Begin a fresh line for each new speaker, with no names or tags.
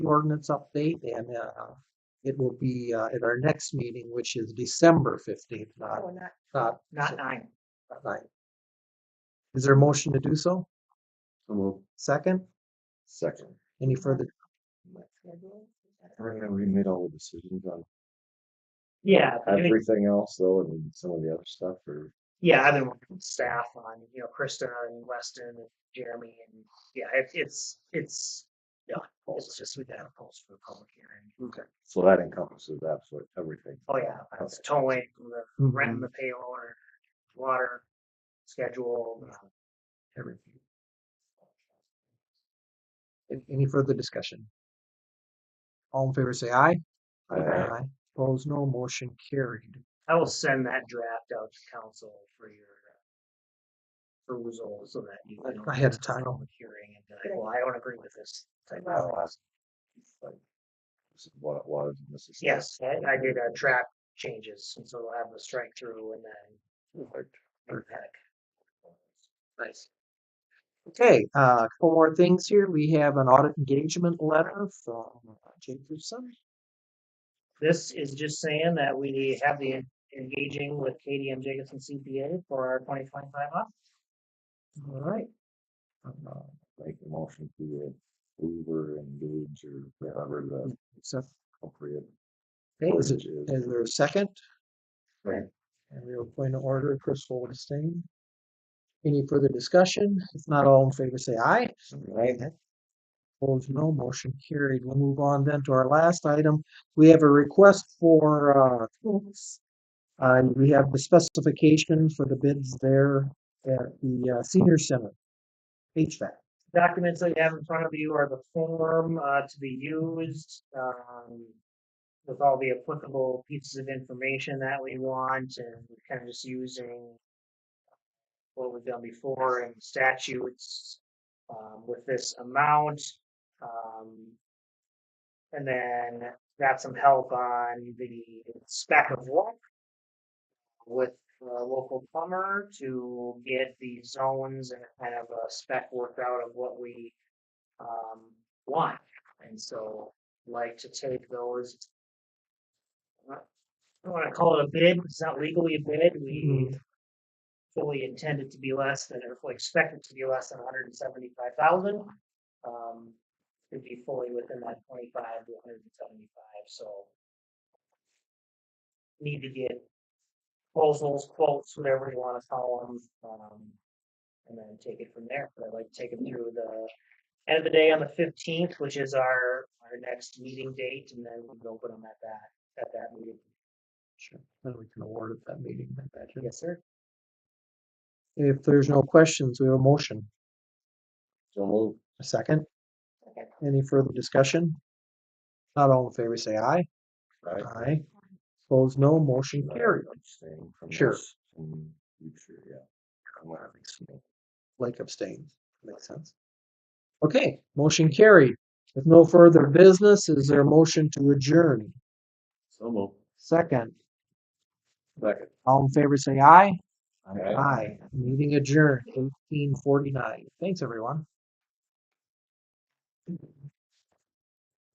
the ordinance update and, uh, it will be, uh, at our next meeting, which is December fifteenth, not,
Oh, not,
not,
not nine.
not nine. Is there a motion to do so? Second,
Second.
any further,
What schedule is that?
We made all the decisions on
Yeah, I mean,
everything else though, and some of the other stuff or.
yeah, I've been working with staff on, you know, Krista and Weston and Jeremy and, yeah, it's, it's, it's, yeah, it's just we gotta post for the public hearing.
So that encompasses absolutely everything.
Oh, yeah, it's towing, the rent and
Mhm.
the payload, or water schedule, uh, everything.
an- any further discussion? All in favor, say aye.
Aye.
Opposed, no, motion carried.
I will send that draft out to council for your uh, perusal so that you
Like,
can.
I had a
have a
time.
public Hearing and be like, well, I don't agree with this. type
I don't
of-
ask, like, This is what it was. and this is that.
Yes, I I did uh track changes, and so we'll have the strike through and then. bring back. Nice.
Okay, uh, a couple more things here. We have an audit engagement letter from uh, Jacobson.
This is just saying that we have the en- engaging with KDM Jacobson CPA for our twenty twenty-five off.
All right.
Uh, Make a motion to Uber engage or whatever the
So,
appropriate.
okay, Oh, is it, uh,
verbiage is.
is there a second?
Right.
And we will point to order, Chris will abstain. Any further discussion? If not, all in favor, say aye.
Right.
Opposed, no. Motion carried. We'll move on then to our last item. We have a request for, uh, quotes. Uh, we have the specification for the bids there at the uh, senior center. HVAC.
documents that you have in front of you are the form uh, to be used um, with all the applicable pieces of information that we want, and we're kind of just using what we've done before in statutes um, with this amount. Um, and then got some help on the spec of work with a local plumber to get the zones and kind of a spec worked out of what we um, want. And so like to take those. uh, I don't want to call it a bid, because it's not legally a bid. We fully intend it to be less than, or fully expect it to be less than hundred and seventy-five thousand. Um, it'd be fully within that twenty-five to hundred and seventy-five, so. Need to get proposals, quotes, whatever you want to call them. Um, and then take it from there. But I'd like to take them through the end of the day on the fifteenth, which is our, our next meeting date, and then we can open them at that, at that meeting.
Sure. Then we can award at that meeting, I imagine.
Yes, sir.
If there's no questions, we have a motion.
So move.
A second.
Okay.
Any further discussion? Not all in favor, say aye.
Right.
Aye. Opposed, no. Motion
Right,
carried.
abstain from
Sure.
this in Future, yeah. I'm gonna abstain.
Blake abstained. Makes sense. Okay, motion carried. With no further business, is there a motion to adjourn?
So move.
Second,
Second.
all in favor, say aye.
Aye.
Aye. Meeting adjourned, eighteen forty-nine. Thanks, everyone.